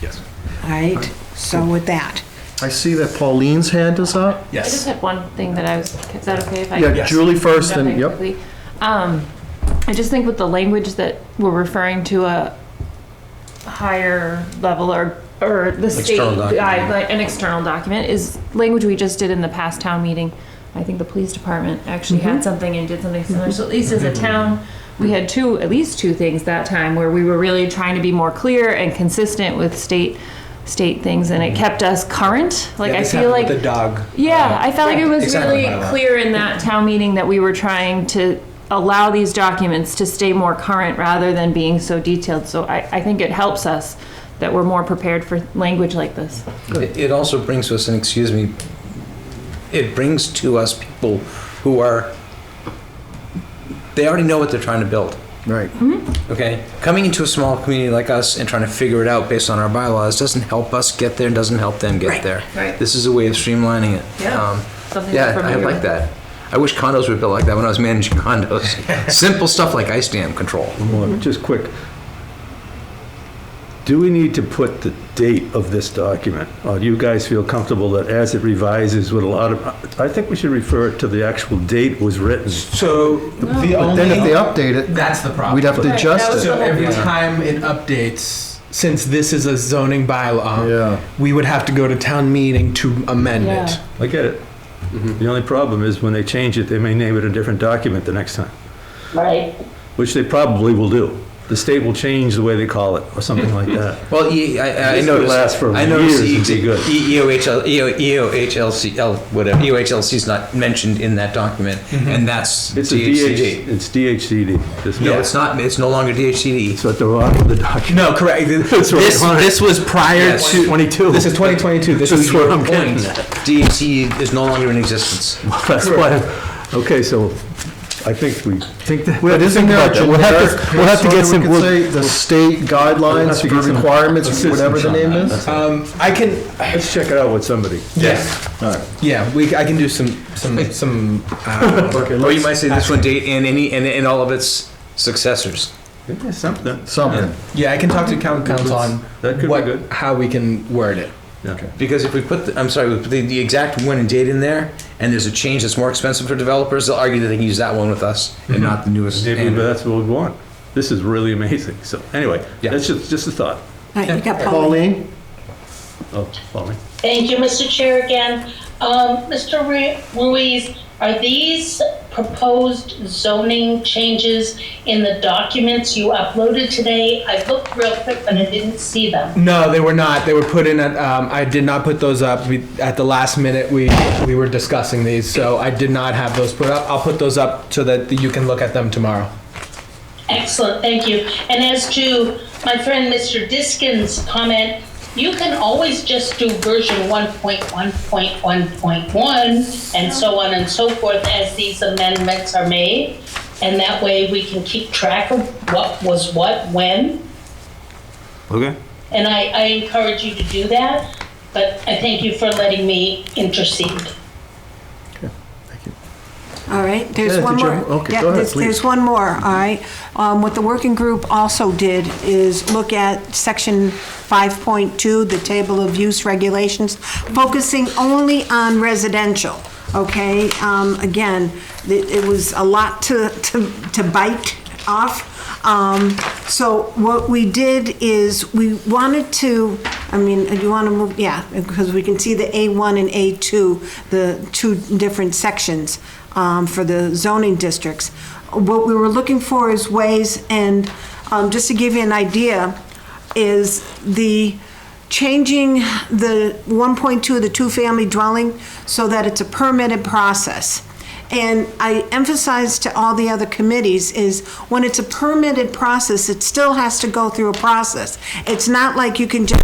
Yes. All right, so with that, I see that Pauline's hand is up. I just Yes. had one thing that I was, is that okay if I? Yeah, Yes. Julie first, and, Okay, yep. quickly. Um, I just think with the language that we're referring to a higher level or, or the state, External document. guide- like an external document is language we just did in the past town meeting. I think the police department actually Mm-hmm. had something and did something similar, so at least as a Mm-hmm. town, we had two, at least two things that time where we were really trying to be more clear and consistent with state, state things and it kept us current. Like Mm-hmm. Yeah, I this feel like. happened with The dog. Uh, Uh, Yeah, I felt like it was Exactly. really clear in that town meeting that we were trying to allow these documents to stay more current rather than being so detailed. So I, I think it helps us that we're more prepared for language like this. It it also brings to us, and excuse me, it brings to us people who are, they already know what they're trying to build, Right. okay? Coming into a small community like us and trying to figure it out based on our bylaws doesn't help us get there and doesn't help them Right, get there. right. This is a way of streamlining it. Yeah. Um, Something Yeah, we're I familiar like with. that. I wish condos were built like that when I was managing condos. Simple stuff like ice dam control. Well, Just quick. Do we need to put the date of this document? Or do you guys feel comfortable that as it revises with a lot of, I think we should refer it to the actual date it was written. So the But then if they only, update it, that's the problem. we'd have to Right, that adjust was it. So the whole every point. time it updates, since this is a zoning bylaw, Yeah. we would have to go to town meeting to amend Yeah. it. I get it. The only problem is when they change it, they may name it a different document the next time, Right. which they probably will do. The state will change the way they call it or something like that. Well, E- I, I This could noticed. last for I noticed years and be good. E- EOHL, EO, EOHLC, L- whatever, EOHLC is not mentioned in that document, and that's It's a DHCD. DH, it's DHCD. This- No, it's not, it's no longer DHCD. It's at the bottom of the document. No, correct. This, what I wanted. this, was prior Yes. to 22. This is 2022. This That's is where your I'm getting point. DHCD is no longer in existence. That's why, okay, so I think we think that. But isn't think there a about that. generic, We'll have to- we'll have to get some, the state We'll guidelines have to for get some requirements, whatever the assistance name on that. is? Um, I can. Let's check it out with somebody. Yeah. All right. Yeah. We. I can do some. Some. Some. Uh, Or you might say this one date and any, and, and all of its successors. Yeah, Something. Something. yeah. I can talk to coun- council on That could be what, good. how we can word it. Okay. Because if we put, the- I'm sorry, we put the, the exact one and date in there, and there's a change that's more expensive for developers, they'll argue that they can use that one with us and not the newest. Mm-hmm. Maybe and- that's what we want. This is really amazing. So anyway, Yeah. that's just, just a thought. all right, you got Pauline. Pauline? Oh, Pauline. Thank you, Mr. Chair, again. Um, Mr. Ru- Ruiz, are these proposed zoning changes in the documents you uploaded today? I looked real quick, but I didn't see them. No, they were not. They were put in at. Um, I did not put those up. We, at the last minute, we we were discussing these, so I did not have those put up. I'll put those up so that you can look at them tomorrow. Excellent, thank you. And as to my friend Mr. Diskin's comment, you can always just do version 1.1.1.1 and so on and so forth as these amendments are made. And that way we can keep track of what was what, when. Okay. And I, I encourage you to do that, but I thank you for letting me intercede. All right, there's Yeah, one did you- more. okay, Yeah, go ahead, there's- There's please. one more, all right. Um, What the working group also did is look at section 5.2, the table of use regulations, focusing only on residential, okay? Um, Again, it it was a lot to to to bite off. Um, So what we did is, we wanted to, I mean, you want to move, yeah, because we can see the A1 and A2, the two different sections um, for the zoning districts. What we were looking for is ways, and um, just to give you an idea, is the changing the 1.2 of the two-family dwelling so that it's a permitted process. And I emphasize to all the other committees is when it's a permitted process, it still has to go through a process. It's not like you can just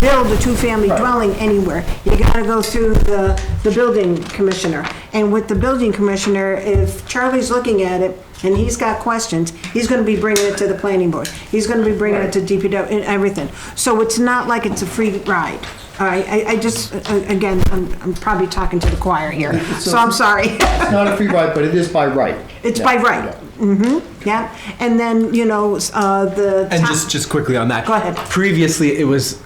build a two-family dwelling anywhere. You gotta go through the, the building commissioner. And with the building commissioner, if Charlie's looking at it and he's got questions, he's gonna be bringing it to the planning board. He's gonna be bringing it to DPW and everything. So it's not like it's a free ride. All right, I, I just, uh, again, I'm, I'm probably talking to the choir here, so I'm sorry. It's not a free ride, but it is by right. It's by right. Mm-hmm, yeah. And then, you know, s- uh, the. And top- just just quickly on that. Go ahead. Previously, it was